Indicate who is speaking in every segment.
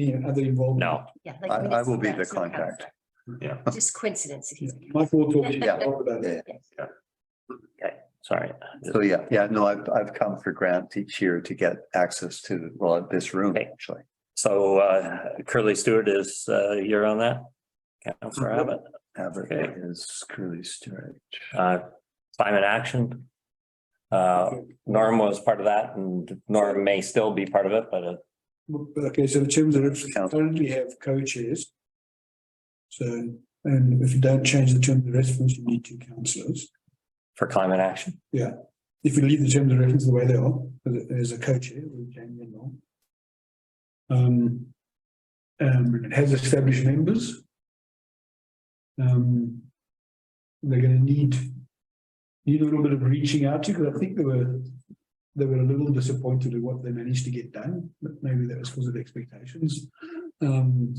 Speaker 1: any other involvement?
Speaker 2: No,
Speaker 3: Yeah.
Speaker 4: I,
Speaker 3: like
Speaker 4: I will be the
Speaker 3: minutes, no
Speaker 4: contact.
Speaker 3: council. Just coincidence. if he's a council.
Speaker 1: Michael will talk
Speaker 4: Yeah.
Speaker 1: talk about
Speaker 4: Yeah.
Speaker 1: that.
Speaker 3: Yes.
Speaker 2: sorry.
Speaker 4: So yeah, yeah, no, I've, I've come for grant each year to get access to, well, this room
Speaker 2: Okay.
Speaker 4: actually.
Speaker 2: So uh, Curly Stewart is, uh, you're on that? Counselor
Speaker 4: Mhm.
Speaker 2: Abbott,
Speaker 4: Abbott is Curly Stewart.
Speaker 2: uh, climate action. Uh, Norm was part of that and Norm may still be part of it, but uh,
Speaker 1: Okay, so the terms of,
Speaker 4: Council.
Speaker 1: currently have co-chairs. So, and if you don't change the terms of reference, you need two councillors.
Speaker 2: for climate action,
Speaker 1: If you leave the terms of reference the way they are, as- as a co-chair, we change them along. Um, um, it has established members. Um, they're gonna need, need a little bit of reaching out to, because I think they were, they were a little disappointed at what they managed to get done, but maybe that was because of expectations. Um,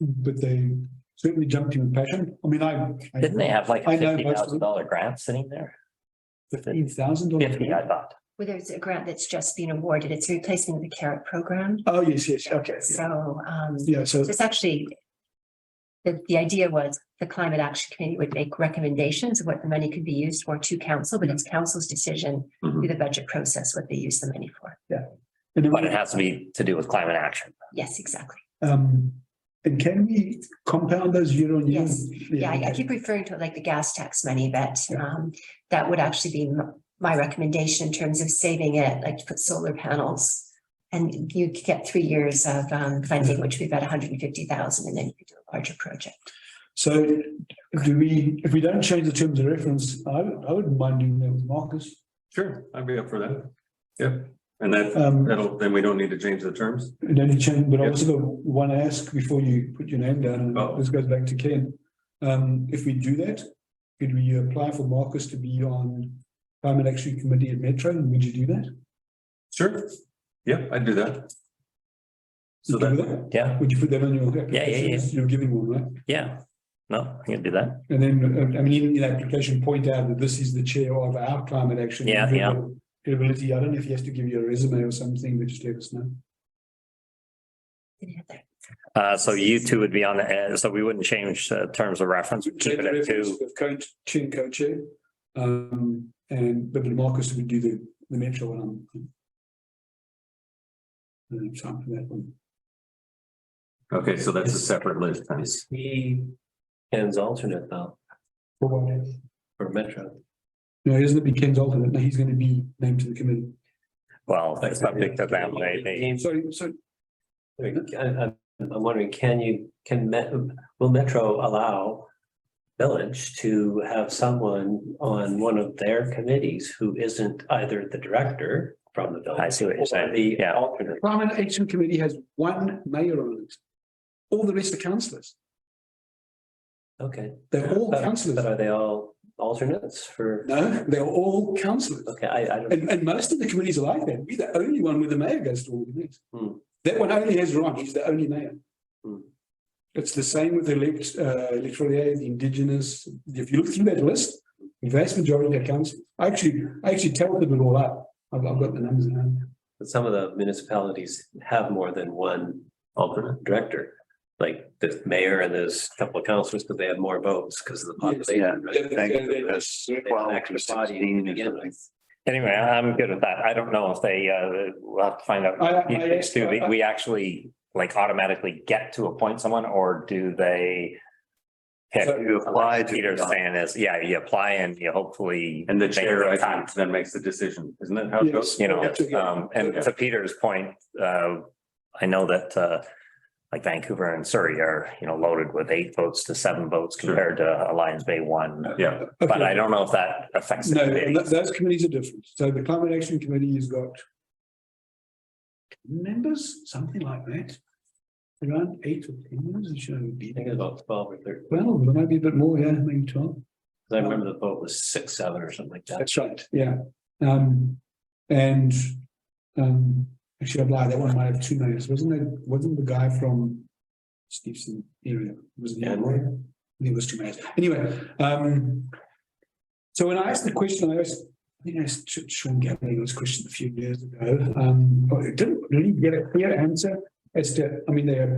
Speaker 1: but they certainly jumped in with passion. I mean, I. I-
Speaker 2: didn't they have like
Speaker 1: I
Speaker 2: a
Speaker 1: know
Speaker 2: fifty
Speaker 1: most of
Speaker 2: thousand
Speaker 1: them.
Speaker 2: dollar grant sitting there?
Speaker 1: Fifteen thousand dollars.
Speaker 2: Fifty, I thought.
Speaker 3: Well, there's a grant that's just been awarded. It's replacing the carrot program.
Speaker 1: Oh, yes, yes, okay. yeah.
Speaker 3: So, um,
Speaker 1: Yeah, so
Speaker 3: So It's actually, the, the idea was the climate action committee would make recommendations of what the money could be used for to council, but it's council's decision
Speaker 2: Mhm.
Speaker 3: through the budget process what they use the money for.
Speaker 1: And then-
Speaker 2: But it has to be to do with climate action.
Speaker 3: Yes, exactly.
Speaker 2: uh,
Speaker 1: Um, and can we compound those year on year?
Speaker 3: Yes. Yeah, I I keep referring to it like the gas tax money, but um, that would actually be m- my recommendation in terms of saving it, like to put solar panels. And you could get three years of um, funding, which would be about hundred and fifty thousand, and then you could do a larger project.
Speaker 1: So do we, if we don't change the terms of reference, I, I wouldn't mind doing that with Marcus.
Speaker 5: Sure, I'd be up for that. Yep, and that,
Speaker 1: Um,
Speaker 5: that'll, then we don't need to change the terms.
Speaker 1: and then you change, but I
Speaker 5: Yep.
Speaker 1: also got one ask before you put your name down,
Speaker 5: Oh.
Speaker 1: and this goes back to Ken. Um, if we do that, could we apply for Marcus to be on climate action committee at Metro, and would you do that?
Speaker 5: Sure. Yep, I'd do that. So
Speaker 1: Would you do
Speaker 5: that,
Speaker 2: Yeah,
Speaker 1: Would you put that on your?
Speaker 2: yeah, yeah.
Speaker 1: You're giving one, right?
Speaker 2: yeah. No, I can do that.
Speaker 1: And then, uh, I mean, in the application, point out that this is the chair of our climate action.
Speaker 2: Yeah, yeah.
Speaker 1: Ability, I don't know if he has to give you a resume or something, but just let us know.
Speaker 2: Uh, so you two would be on, the uh, so we wouldn't change uh, terms of reference. We'd Keep it at two.
Speaker 1: Of co- chin co-chair, um, and but Marcus would do the, the metro one. um, And it's time for that one.
Speaker 5: okay, so that's a separate list. then.
Speaker 6: Is he Ken's alternate though
Speaker 1: For what?
Speaker 6: for Metro?
Speaker 1: No, isn't it be Ken's alternate? No, he's gonna be named to the committee.
Speaker 2: Well, it's subject to them, they, they,
Speaker 1: Sorry, so,
Speaker 6: I, am wondering, can you, can Met, will Metro allow Village to have someone on one of their committees who isn't either the director from the village?
Speaker 2: I see what you're saying.
Speaker 6: or The
Speaker 2: Yeah.
Speaker 6: alternate.
Speaker 1: climate action committee has one mayor on it. All the rest are councillors.
Speaker 6: Okay.
Speaker 1: They're all
Speaker 6: But-
Speaker 1: councillors.
Speaker 6: But are they all alternates for,
Speaker 1: No, they're all councillors.
Speaker 6: okay, I, I don't.
Speaker 1: And, and most of the committees are like that. We're the only one where the mayor goes to all the meetings.
Speaker 6: Hmm.
Speaker 1: That one only has Ron, he's the only mayor.
Speaker 6: Hmm.
Speaker 1: It's the same with elect, uh, electoral area, the indigenous, if you look through that list, the vast majority of council, I actually, I actually tallied it all up. I've, I've got the numbers in hand.
Speaker 6: But some of the municipalities have more than one alternate director. Like the mayor and there's a couple of councillors, because they have more votes because of the population. right?
Speaker 4: Thank you. That's
Speaker 6: They have an
Speaker 4: 12
Speaker 6: extra
Speaker 4: to
Speaker 6: body
Speaker 4: 16
Speaker 6: to
Speaker 4: or
Speaker 6: begin
Speaker 4: something.
Speaker 6: with.
Speaker 2: anyway, I'm good with that. I don't know if they, uh, we'll have to find out.
Speaker 1: I- I-
Speaker 2: You
Speaker 1: I-
Speaker 2: guys Do we, we actually like automatically get to appoint someone or do they? pick?
Speaker 1: So-
Speaker 4: You apply to.
Speaker 2: Peter's saying is, yeah, you apply and you hopefully.
Speaker 5: And the
Speaker 2: make
Speaker 5: chair, I
Speaker 2: the time,
Speaker 5: think, then makes the decision, isn't that how it goes?
Speaker 1: Yes.
Speaker 2: You know,
Speaker 1: Yeah.
Speaker 2: um, and to Peter's point, uh, I know that, uh, like Vancouver and Surrey are, you know, loaded with eight votes to seven votes
Speaker 5: Sure.
Speaker 2: compared to Alliance Bay one.
Speaker 5: Yeah,
Speaker 2: But
Speaker 1: Uh, Okay.
Speaker 2: I don't know if that affects. the
Speaker 1: No,
Speaker 2: committee.
Speaker 1: th- those committees are different. So the climate action committee has got members, something like that. Around eight or ten members, it should only be.
Speaker 6: I think it's about twelve or thirteen,
Speaker 1: Well, there might be a bit more, yeah, maybe twelve.
Speaker 6: 'Cause I remember the vote was six, seven or something like that.
Speaker 1: That's right, yeah. Um, and, um, actually, I'd lie, that one might have two names, wasn't it? Wasn't the guy from Stevenson area? Was it?
Speaker 6: Yeah.
Speaker 1: It was two names. Anyway, um, so when I asked the question, I asked, I think I asked Sh- Sean Gavin this question a few years ago. Um, but it didn't really get a clear answer. It's, the- I mean, they have